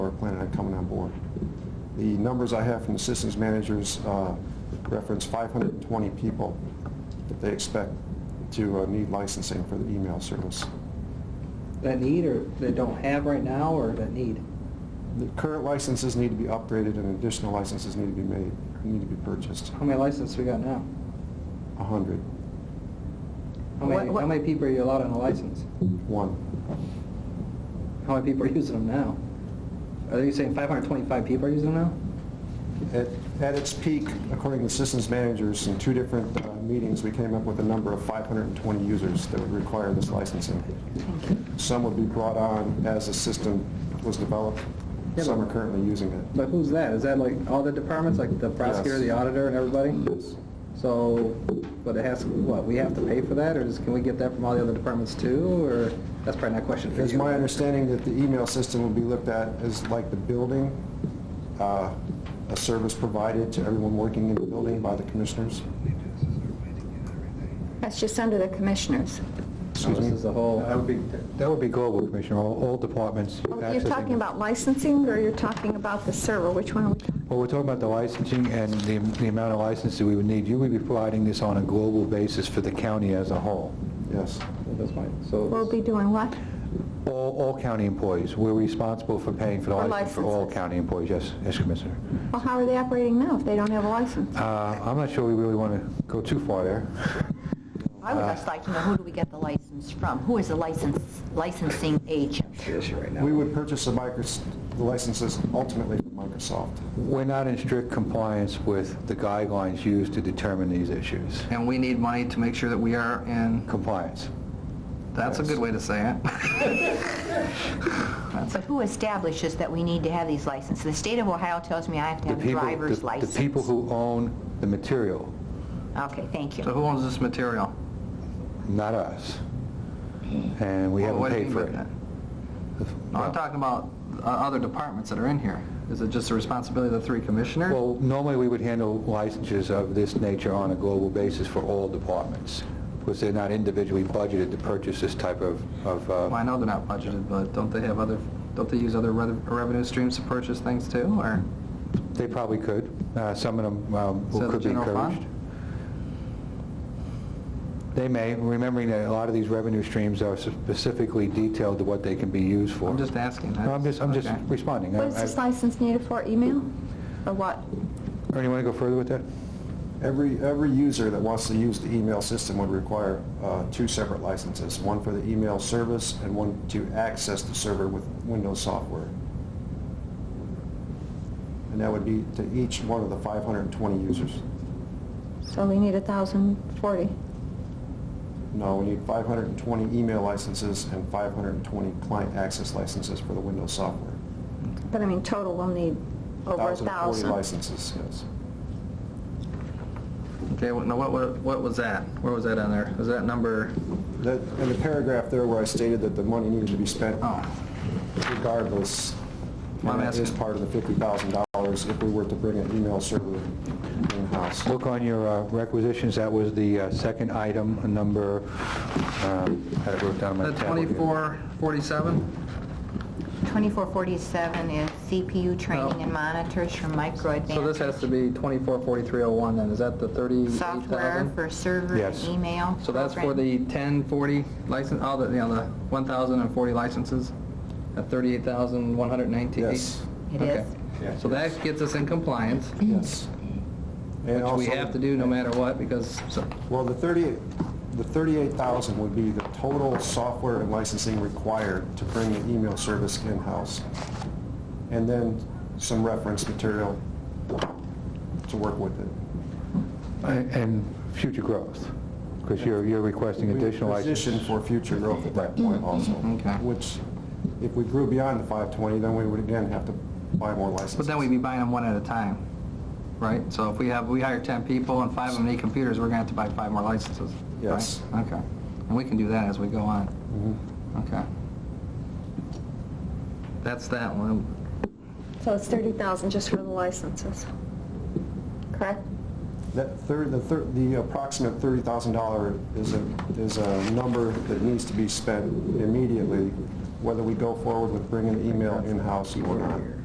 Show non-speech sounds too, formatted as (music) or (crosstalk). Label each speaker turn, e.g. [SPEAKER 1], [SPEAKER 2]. [SPEAKER 1] The numbers I have from the systems managers uh, reference 520 people that they expect to uh, need licensing for the email service.
[SPEAKER 2] that need or that don't have right now or that need?
[SPEAKER 1] The current licenses need to be upgraded and additional licenses need to be made, need to be purchased,
[SPEAKER 2] How many licenses we got now?
[SPEAKER 1] 100,
[SPEAKER 2] How
[SPEAKER 3] What-
[SPEAKER 2] many,
[SPEAKER 3] what-
[SPEAKER 2] how many people are you allowed on a license?
[SPEAKER 1] one.
[SPEAKER 2] How many people are using them now? Are you saying 525 people are using them now?
[SPEAKER 1] At at its peak, according to systems managers, in two different uh, meetings, we came up with a number of 520 users that would require this licensing. Some would be brought on as the system was developed,
[SPEAKER 2] Yeah,
[SPEAKER 1] some
[SPEAKER 2] but-
[SPEAKER 1] are currently using it.
[SPEAKER 2] But who's that? Is that like all the departments, like the prosecutor,
[SPEAKER 1] Yes.
[SPEAKER 2] the auditor, and everybody? So, but it has, what, we have to pay for that, or is- can we get that from all the other departments too, or, that's probably not a question for
[SPEAKER 1] It's
[SPEAKER 2] you.
[SPEAKER 1] my understanding that the email system will be looked at as like the building, uh, a service provided to everyone working in the building by the commissioners.
[SPEAKER 3] That's just under the commissioners.
[SPEAKER 2] No, This is the whole,
[SPEAKER 4] That would be, that would be global, Commissioner, all, all departments
[SPEAKER 3] You're
[SPEAKER 4] accessing.
[SPEAKER 3] talking about licensing, or you're talking about the server? Which one are we talking?
[SPEAKER 4] Well, we're talking about the licensing and the, the amount of licenses we would need. You would be providing this on a global basis for the county as a whole.
[SPEAKER 1] Yes.
[SPEAKER 2] that's my, so.
[SPEAKER 3] We'll be doing what?
[SPEAKER 4] All, all county employees, we're responsible for paying for the
[SPEAKER 3] For
[SPEAKER 4] license for all
[SPEAKER 3] licenses.
[SPEAKER 4] county employees, yes, yes, Commissioner.
[SPEAKER 3] Well, how are they operating now if they don't have a license?
[SPEAKER 4] Uh, I'm not sure we really want to go too far there.
[SPEAKER 5] I
[SPEAKER 2] Uh,
[SPEAKER 5] would just like to know, who do we get the license from? Who is the license, licensing agent?
[SPEAKER 2] Issue right now.
[SPEAKER 1] We would purchase the micros- the licenses ultimately from Microsoft.
[SPEAKER 4] We're not in strict compliance with the guidelines used to determine these issues.
[SPEAKER 2] And we need money to make sure that we are in,
[SPEAKER 4] Compliance.
[SPEAKER 2] that's a good way to say it. (laughs)
[SPEAKER 5] But who establishes that we need to have these licenses? The state of Ohio tells me I have to
[SPEAKER 4] The
[SPEAKER 5] have a
[SPEAKER 4] people- the-
[SPEAKER 5] driver's license.
[SPEAKER 4] The people who own the material,
[SPEAKER 5] Okay, thank
[SPEAKER 2] So
[SPEAKER 5] you.
[SPEAKER 2] who owns this material?
[SPEAKER 4] not us. And we
[SPEAKER 2] Hmm. Well,
[SPEAKER 4] haven't
[SPEAKER 2] what do you
[SPEAKER 4] paid for
[SPEAKER 2] mean
[SPEAKER 4] it.
[SPEAKER 2] by that? No, I'm talking about uh, other departments that are in here. Is it just the responsibility of the three commissioners?
[SPEAKER 4] Well, normally, we would handle licenses of this nature on a global basis for all departments, because they're not individually budgeted to purchase this type of, of,
[SPEAKER 2] Well,
[SPEAKER 4] uh,
[SPEAKER 2] I know they're not budgeted, but don't they have other, don't they use other rev- revenue streams to purchase things too, or?
[SPEAKER 4] they probably could. Uh, Some of them um,
[SPEAKER 2] So the
[SPEAKER 4] could be
[SPEAKER 2] general fund?
[SPEAKER 4] encouraged. They may, remembering that a lot of these revenue streams are specifically detailed to what they can be used for.
[SPEAKER 2] I'm just asking.
[SPEAKER 4] No, I'm just, I'm just
[SPEAKER 2] Okay.
[SPEAKER 4] responding.
[SPEAKER 3] What is
[SPEAKER 4] I-
[SPEAKER 3] this
[SPEAKER 4] I-
[SPEAKER 3] license needed for, email? Or what?
[SPEAKER 4] Ernie, want to go further with that?
[SPEAKER 1] Every, every user that wants to use the email system would require uh, two separate licenses, one for the email service and one to access the server with Windows software. And that would be to each one of the 520 users.
[SPEAKER 3] So we need 1,040.
[SPEAKER 1] No, we need 520 email licenses and 520 client access licenses for the Windows software.
[SPEAKER 3] But I mean, total, we'll need over 1,000.
[SPEAKER 1] 1,040 licenses, yes.
[SPEAKER 2] Okay, well, now what, wa- what was that? Where was that on there? Was that number?
[SPEAKER 1] That, in the paragraph there where I stated that the money needed to be spent
[SPEAKER 2] Oh,
[SPEAKER 1] regardless,
[SPEAKER 2] I'm
[SPEAKER 1] and that is
[SPEAKER 2] asking-
[SPEAKER 1] part of the $50,000 if we were to bring an email server in-house.
[SPEAKER 4] Look on your uh, requisitions, that was the uh, second item, number, um, I had it wrote down on my
[SPEAKER 2] that
[SPEAKER 4] tablet.
[SPEAKER 2] twenty-four, forty-seven?
[SPEAKER 5] 2447 is CPU training
[SPEAKER 2] No.
[SPEAKER 5] and monitors for micro advantage.
[SPEAKER 2] Oh. So this has to be twenty-four, forty-three oh one then. Is that the thirty-eight
[SPEAKER 5] Software
[SPEAKER 2] thousand?
[SPEAKER 5] for server and
[SPEAKER 4] Yes.
[SPEAKER 5] email.
[SPEAKER 2] So that's for
[SPEAKER 5] program.
[SPEAKER 2] the ten, forty license, all the, you know, the one thousand and forty licenses? At thirty-eight thousand, one hundred nineteen?
[SPEAKER 1] Yes,
[SPEAKER 5] It
[SPEAKER 2] Okay.
[SPEAKER 5] is.
[SPEAKER 1] Yes.
[SPEAKER 2] So that gets us in compliance,
[SPEAKER 1] yes. And
[SPEAKER 2] which we
[SPEAKER 1] also-
[SPEAKER 2] have to do no matter what, because, so,
[SPEAKER 1] Well, the 38, the 38,000 would be the total software and licensing required to bring the email service in-house. And then some reference material to work with it.
[SPEAKER 4] And and future growth, because you're, you're requesting additional licenses.
[SPEAKER 1] Position for future growth at that point also.
[SPEAKER 2] Okay.
[SPEAKER 1] Which, if we grew beyond the 520, then we would again have to buy more licenses.
[SPEAKER 2] but then we'd be buying them one at a time, right? So if we have, we hire 10 people and five of them need computers, we're gonna have to buy five more licenses. right?
[SPEAKER 1] Yes. Mm-hmm.
[SPEAKER 2] Okay. And we can do that as we go on. Okay. That's that one.
[SPEAKER 3] So it's 30,000 just for the licenses, correct?
[SPEAKER 1] That third, the third, the approximate thirty thousand dollar is a, is a number that needs to be spent immediately, whether we go forward with bringing the email in-house or not.